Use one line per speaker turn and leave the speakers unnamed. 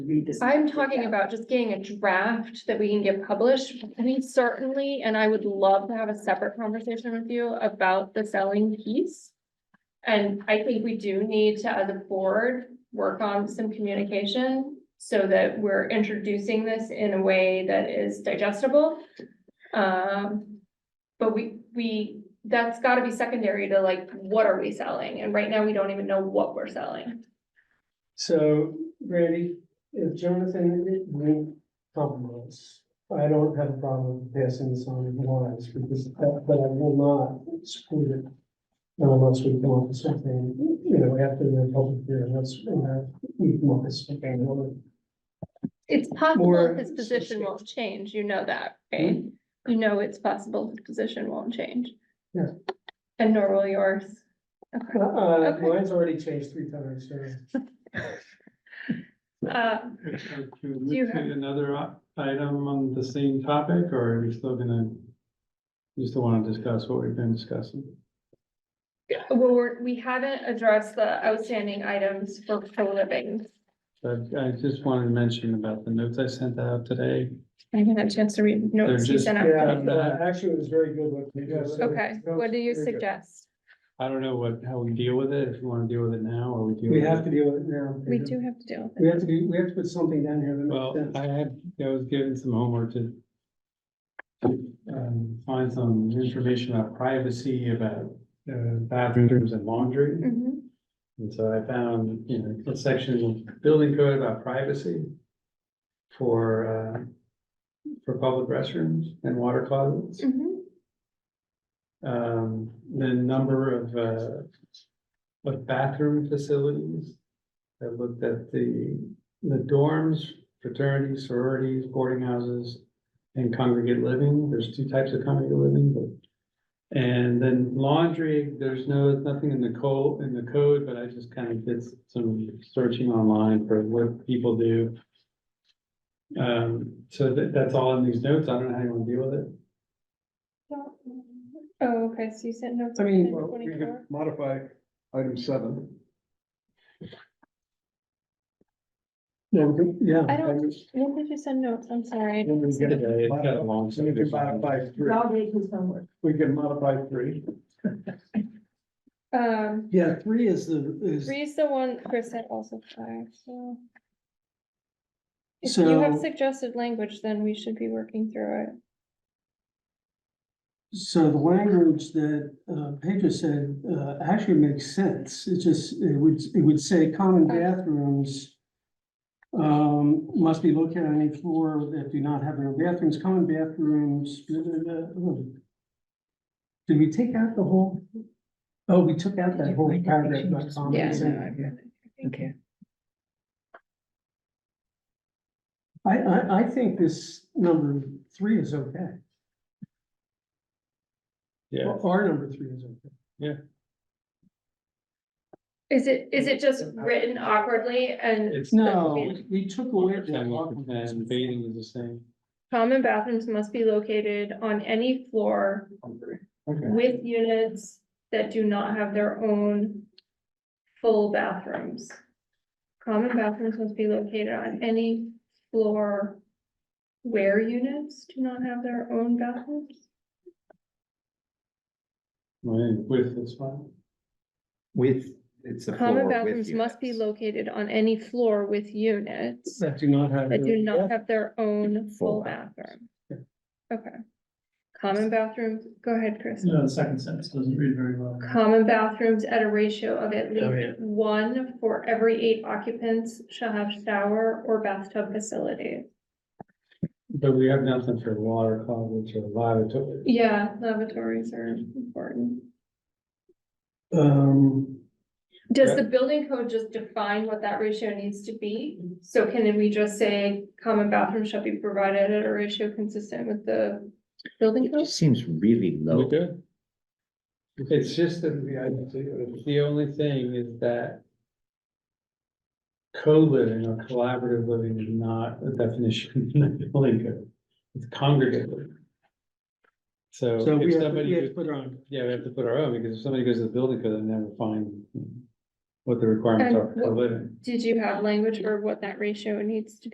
read this.
I'm talking about just getting a draft that we can get published. I mean, certainly, and I would love to have a separate conversation with you about the selling piece. And I think we do need to, as a board, work on some communication so that we're introducing this in a way that is digestible. Um, but we, we, that's gotta be secondary to like, what are we selling? And right now, we don't even know what we're selling.
So Randy, if Jonathan it won't compromise, I don't have a problem passing this on in lines because that, but I will not support it. Unless we come up with something, you know, after the public hearing, that's, you know, we come up with something. or-
It's possible
Or-
his position won't change, you know that, right?
Hmm?
You know it's possible his position won't change.
Yeah.
And nor will yours. Okay.
Uh,
Okay.
mine's already changed three times, so.
Uh,
Are you
Do you
look at another i- item on the same topic, or are you still gonna? You still wanna discuss what we've been discussing?
well, we're, we haven't addressed the outstanding items for co-living.
But I just wanted to mention about the notes I sent out today.
I haven't had a chance to read notes
They're
you
just-
sent out.
Yeah, uh, actually, it was very good. what you guys said.
Okay, what do you suggest?
I don't know what, how we deal with it, if you wanna deal with it now, or we deal.
We
with
have
it-
to deal with it now.
We do have to deal with
We
it.
have to do, we have to put something down here that
Well,
makes sense.
I had, I was given some homework to. to, Um, find some information about privacy, about uh, bathrooms and laundry.
Mhm.
And so I found, you know, a section of building code about privacy for, uh, for public restrooms and water closets.
Mhm.
Um, the number of, uh, of bathroom facilities. I looked at the, the dorms, fraternities, sororities, boarding houses, and congregate living. There's two types of congregate living, but and then laundry, there's no, nothing in the code, in the code, but I just kind of did some searching online for what people do. Um, so that, that's all in these notes. I don't know how you want to deal with it.
Oh, okay, so you sent notes.
I mean,
on
well, we could
24.
modify item seven.
Yeah, we could- yeah.
I don't, when did you send notes? I'm sorry.
Then we
Yeah,
get-
it's got a long
so we can modify three.
Rob did his homework.
We can modify three.
Um.
Yeah, three is the, is,
Three's the one Chris had also five, so. If you have
So-
suggested language, then we should be working through it.
so the language that uh Pedro said uh actually makes sense. It just, it would, it would say common bathrooms. Um, must be located on a floor that do not have their own bathrooms, common bathrooms. blah, blah, blah, blah. Did we take out the whole? Oh, we took out that whole paragraph. about common
Yeah.
consent.
Okay.
I I I think this number three is okay.
Yeah,
Our number three is okay.
Is it, is it just written awkwardly and
it's.
No, we took away the
And bathing is the same.
common bathrooms must be located on any floor
Okay.
with units that do not have their own full bathrooms? Common bathrooms must be located on any floor where units do not have their own bathrooms?
Right, With this one.
With, it's a floor
Common
with
bathrooms must be
units.
located on any floor with units
That do not have.
that do not have their own full
Full
bathroom. Okay. Common bathrooms, go ahead, Chris.
the second sentence doesn't read very well.
Common bathrooms at a ratio of at
Oh, yeah.
least one for every eight occupants shall have shower or bathtub facility.
But we have nothing for water closets or lavatories.
Yeah, lavatories are important.
Um,
Does the building code just define what that ratio needs to be? So can then we just say common bathrooms shall be provided at a ratio consistent with the building
It
code?
just seems really
We
low.
good? It's just that the, I- the only thing is that co-living or collaborative living is not a definition in the building code. It's congregate living. So
so we
if
have, we
somebody,
have to
goes-
put on,
yeah, we have to put our own, because if somebody goes to the building code, they never find. what the requirements
And
are for
what-
living.
Did you have language for what that ratio needs to be?